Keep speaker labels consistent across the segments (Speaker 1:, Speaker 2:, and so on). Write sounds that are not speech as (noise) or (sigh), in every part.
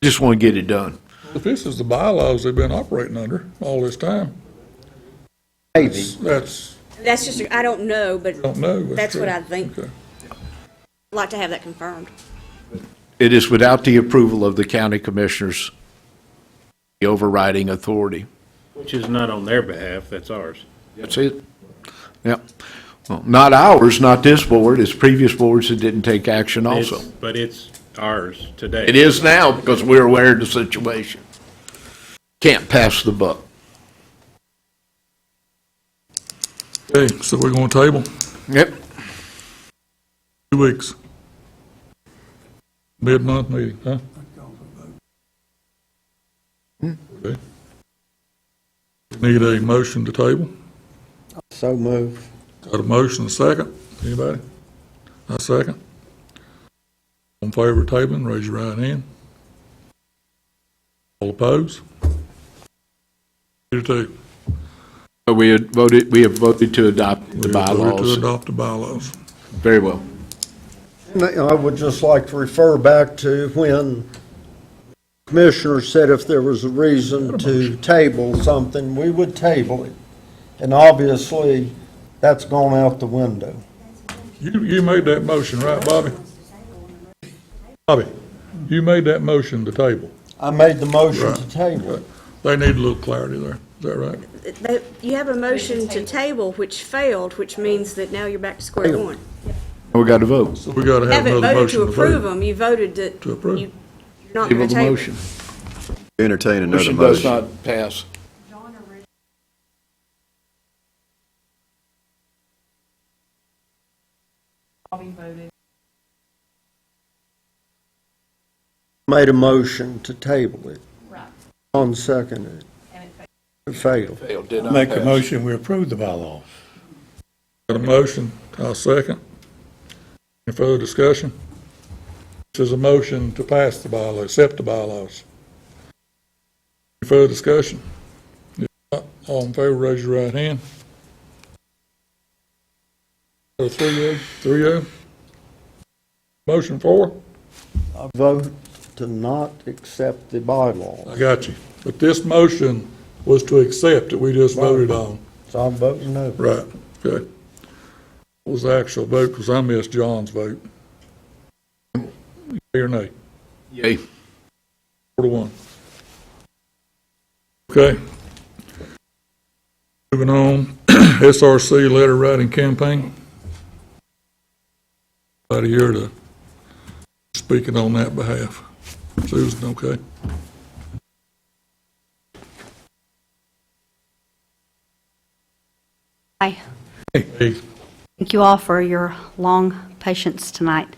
Speaker 1: Just want to get it done.
Speaker 2: If this is the bylaws they've been operating under all this time,
Speaker 3: Maybe.
Speaker 2: that's,
Speaker 4: That's just, I don't know, but
Speaker 2: don't know. but
Speaker 4: That's what
Speaker 2: sure.
Speaker 4: I think.
Speaker 2: Okay.
Speaker 4: I'd like to have that confirmed.
Speaker 1: It is without the approval of the county commissioners, the overriding authority.
Speaker 5: Which is not on their behalf, that's ours.
Speaker 1: That's it. Yeah. Well, not ours, not this board, it's previous boards that didn't take action also.
Speaker 5: It's- But it's ours today.
Speaker 1: It is now because we're aware of the situation. Can't pass the buck.
Speaker 2: Okay, so we're going to table
Speaker 1: Yep.
Speaker 2: two weeks. Mid-month meeting, huh? Okay. Need a motion to table?
Speaker 3: So move.
Speaker 2: Got a motion, a second? Anybody? A second? On favor of tabling, raise your right hand. All opposed? Two to two.
Speaker 1: We had voted, we have voted to adopt the
Speaker 2: We are voted To
Speaker 1: bylaws.
Speaker 2: adopt the bylaws.
Speaker 1: Very well.
Speaker 3: And I would just like to refer back to when Commissioner said if there was a reason to table something, we would table it. And obviously, that's gone out the window.
Speaker 2: You, you made that motion, right, Bobby? Bobby, you made that motion to table.
Speaker 3: I made the motion to
Speaker 2: Right.
Speaker 3: table it.
Speaker 2: They need a little clarity there. Is that right?
Speaker 4: But You have a motion to table which failed, which means that now you're back to square one.
Speaker 1: We got to vote.
Speaker 2: So we gotta
Speaker 4: You
Speaker 2: have
Speaker 4: Haven't
Speaker 2: another
Speaker 4: voted to
Speaker 2: motion to
Speaker 4: approve
Speaker 2: table.
Speaker 4: them, you voted that
Speaker 2: To approve.
Speaker 4: you- you're not
Speaker 1: Table
Speaker 4: going to
Speaker 1: the
Speaker 4: table.
Speaker 1: motion.
Speaker 6: Entertain another
Speaker 1: Motion does
Speaker 6: motion.
Speaker 1: not pass.
Speaker 3: Made a motion to table it. Right. On seconded. It failed.
Speaker 1: Failed, did not
Speaker 7: Make a
Speaker 1: pass.
Speaker 7: motion, we approve the bylaws.
Speaker 2: Got a motion, I'll second. Any further discussion? This is a motion to pass the bylaw, accept the bylaws. Any further discussion? If not, All in favor, raise your right hand. So Three oh, three oh. Motion four,
Speaker 3: I vote to not accept the bylaw.
Speaker 2: I got you. But this motion was to accept that we just voted on.
Speaker 3: So I'm voting no.
Speaker 2: Right, okay. What was the actual vote, because I missed John's vote? Yea or nay?
Speaker 1: Yay.
Speaker 2: Four to one. Okay. Moving on, (clears throat) SRC letter writing campaign. About here to speaking on that behalf. Susan, okay?
Speaker 8: Hi.
Speaker 2: Hey,
Speaker 8: Thank you all for your long patience tonight.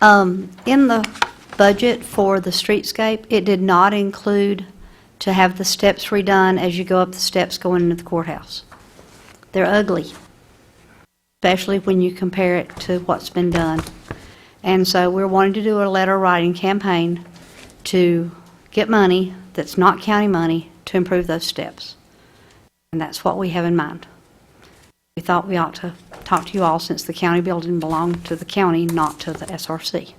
Speaker 8: Um, In the budget for the streetscape, it did not include to have the steps redone as you go up the steps going into the courthouse. They're ugly, especially when you compare it to what's been done. And so we're wanting to do a letter writing campaign to get money that's not county money to improve those steps. And that's what we have in mind. We thought we ought to talk to you all since the county building belonged to the county, not to the SRC. Is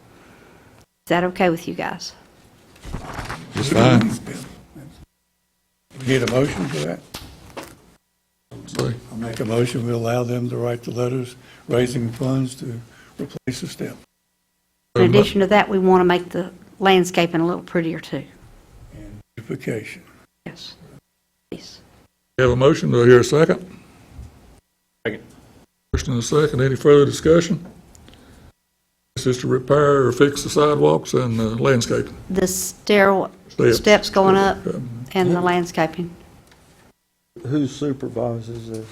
Speaker 8: that okay with you guys?
Speaker 2: it's fine.
Speaker 7: We Need a motion for that?
Speaker 2: Say.
Speaker 7: I make a motion, we allow them to write the letters raising funds to replace the step.
Speaker 8: In addition to that, we want to make the landscaping a little prettier too.
Speaker 7: Beautification.
Speaker 8: Yes. Please.
Speaker 2: Have a motion, do I hear a second?
Speaker 5: Second.
Speaker 2: First and a second, any further discussion? This is to repair or fix the sidewalks and uh, landscaping.
Speaker 8: The stair,
Speaker 2: Steps.
Speaker 8: steps going up
Speaker 2: Okay.
Speaker 8: and the landscaping.
Speaker 3: Who supervises this?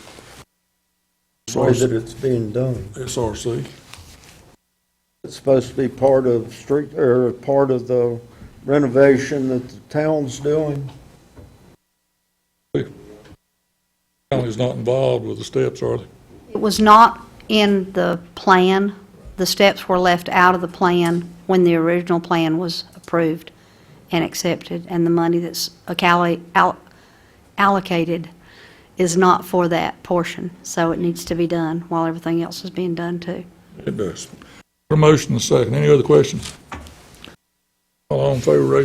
Speaker 3: The way that it's being done.
Speaker 2: SRC,
Speaker 3: It's supposed to be part of street, or part of the renovation that the town's doing.
Speaker 2: county's not involved with the steps, are they?
Speaker 8: It was not in the plan. The steps were left out of the plan when the original plan was approved and accepted, and the money that's accali- al- allocated is not for that portion, so it needs to be done while everything else is being done too.
Speaker 2: It does. A motion, and a second, any other questions? All in favor, raise